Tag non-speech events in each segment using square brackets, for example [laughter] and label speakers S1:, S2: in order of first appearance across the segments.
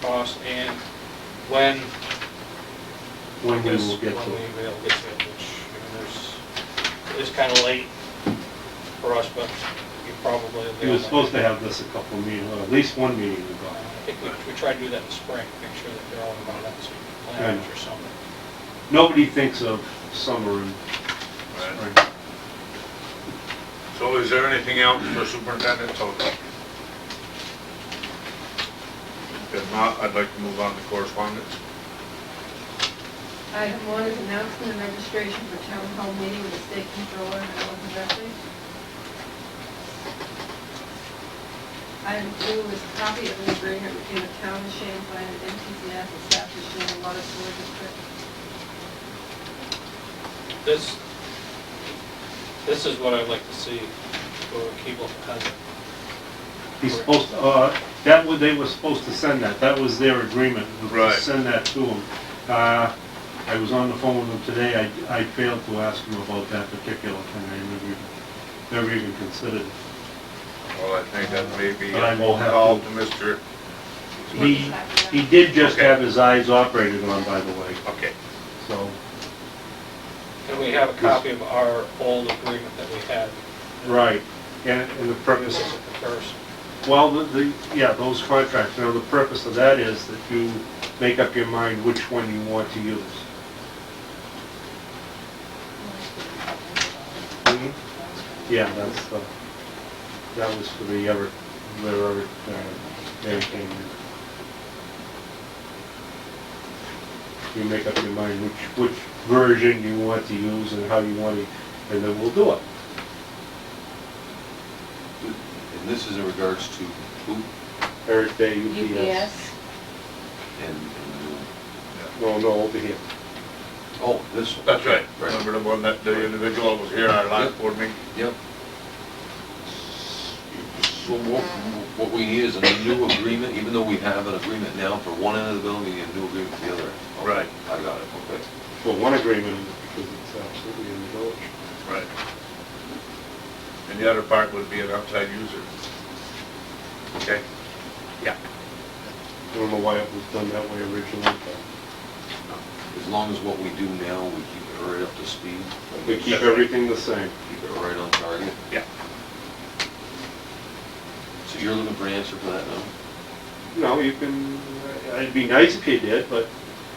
S1: cost and when,
S2: When we
S1: I guess,
S2: will get
S1: When
S2: to it.
S1: we will get to it, which, I mean, there's, it's kind of late for us, but you probably. will be
S2: He
S1: on
S2: was
S1: that.
S2: supposed to have this a couple meetings, at least one meeting ago.
S1: uh, I think we, we try to do that in the spring, make sure that they're all about that, so you can plan it or something.
S2: Nobody thinks of summer and spring.
S3: So is there anything else for Superintendent Toto? If not, I'd like to move on to correspondence.
S4: Item one is announcement and registration for town hall meeting with the state controller and Ellen Gillespie. Item two is copy of the agreement between the town of Champlain and MTCS establishing a water sewer district.
S1: This, this is what I'd like to see for Keeble Hazard.
S2: He's supposed, to. uh, that was, they were supposed to send that, that was their agreement, was to
S3: Right.
S2: send that to him. Uh, I was on the phone with him today, I, I failed to ask him about that particular thing, I never, even- never even considered. it.
S3: Well, I think that may be
S2: But I
S3: a
S2: will have
S3: call
S2: to-
S3: to Mr.,
S2: He, he did just
S3: Okay.
S2: have his eyes operated on, by the way,
S3: okay,
S2: so,
S1: And we have a copy of our old agreement that we had.
S2: right. And, and the
S1: This
S2: purpose
S1: is a comparison.
S2: Well, the, the, yeah, those contracts, now the purpose of that is that you make up your mind which one you want to use. Yeah, that's the, that was for the Everett, the Everett, uh, everything. You make up your mind which, which version you want to use and how you want it, and then we'll do it.
S5: And this is in regards to who?
S2: Everett Day, UPS.
S6: UPS,
S5: And, and,
S2: No, no, over here.
S5: oh, this one.
S3: that's right.
S5: Right.
S3: Remember the one that the individual was here our last
S5: Yep.
S3: board meeting?
S5: Yep. So what, what we need is a new agreement, even though we have an agreement now for one end of the building, we need a new agreement for the other. end.
S3: Right.
S5: I got it, okay.
S2: Well, one agreement, because it's absolutely in the village.
S3: Right. And the other part would be an outside user. Okay? Yeah.
S2: I don't know why it was done that way originally, but
S5: As long as what we do now, we keep it right up to speed.
S2: we keep everything the same.
S5: Keep it right on target.
S3: Yeah.
S5: So you're looking for an answer for that now?
S2: No, you can, uh, it'd be nice if you did, but,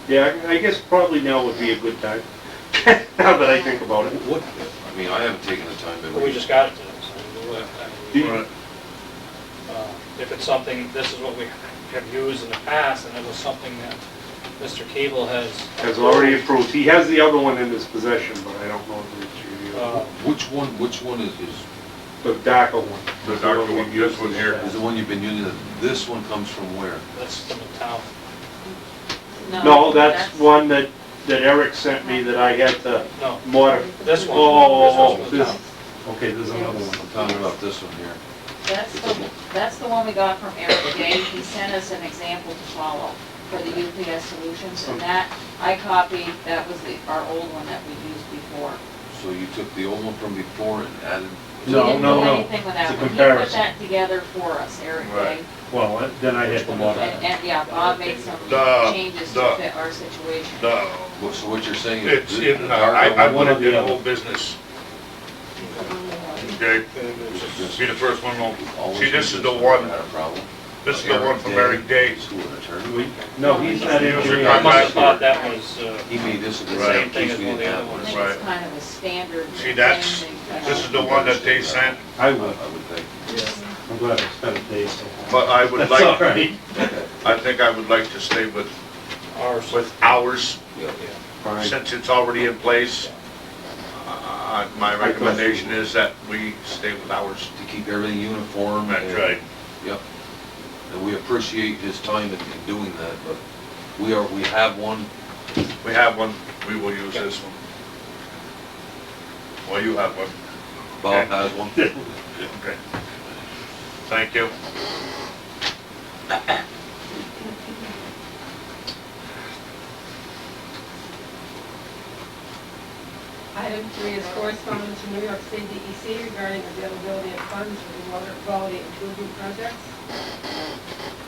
S2: yeah, I I guess probably now would be a good time, [laughs] now that I think about it.
S5: What, I mean, I haven't taken the time to.
S1: But we just got it today, so we will have
S2: Do
S1: time.
S2: you-
S3: Right.
S1: Uh, If it's something, this is what we have used in the past, and it was something that Mr. Cable has.
S2: Has already approved, he has the other one in his possession, but I don't know if it's you.
S1: Uh,
S5: Which one, which one is, is,
S2: The DACA one.
S3: The darker one, this one here.
S5: is the one you've been using, this one comes from where?
S1: That's from the town.
S2: No, that's one that, that Eric sent me that I had to
S1: No,
S2: modify.
S1: This one.
S2: Oh, oh,
S1: This
S2: oh,
S1: one's
S2: this,
S1: down.
S2: okay, there's another
S5: I'm
S2: one.
S5: talking about this one here.
S6: That's the, that's the one we got from Eric Day. He sent us an example to follow for the UPS solutions, and that, I copied, that was the, our old one that we used before.
S5: So you took the old one from before and added,
S6: He
S2: No,
S6: didn't
S2: no,
S6: do
S2: no.
S6: anything with
S2: It's a
S6: that one. He put
S2: comparison.
S6: that together for us, Eric Day.
S3: Right.
S2: Well, then I had to
S6: And,
S2: modify.
S6: and, yeah, Bob made some
S3: Duh,
S6: changes
S3: duh.
S6: to fit our situation.
S3: No.
S5: what- so what you're saying is.
S3: It's
S5: the-
S3: in,
S5: the
S3: uh, I,
S5: darker
S3: I
S5: one-
S3: would have did
S2: the
S3: a
S2: other.
S3: whole business, okay? See the first one, well,
S5: always
S3: see, this is the
S5: one
S3: one,
S5: that had a problem.
S3: this is the one from Eric Day.
S5: School attorney.
S2: We- No, he's not
S3: User
S2: engineering.
S1: I must have
S3: contract.
S1: thought that was, uh,
S5: He made this a good
S3: Right.
S5: thing, in case we didn't have
S6: I
S5: one.
S6: think
S3: Right.
S6: it's kind of a standard.
S3: See, that's,
S6: thing they-
S3: this is the one that they sent,
S2: I
S5: I
S2: would,
S5: would think.
S2: I'm glad I spent a day so.
S3: but I would
S2: That's all
S3: like,
S2: right.
S3: I think I would like to stay with,
S1: ours.
S3: with ours,
S1: Yeah.
S2: Fine.
S3: since it's already in place. Uh, My recommendation is that we stay with ours.
S5: To keep everything uniform.
S3: That's
S5: and-
S3: right.
S5: Yep. And we appreciate his time in in doing that, but we are, we have one.
S3: We have one, we will use this one. Well, you have one,
S5: Bob
S3: Okay.
S5: has one.
S3: okay. Thank you.
S4: Item three is correspondence from New York State E DEC regarding availability of funds for the water quality improvement projects.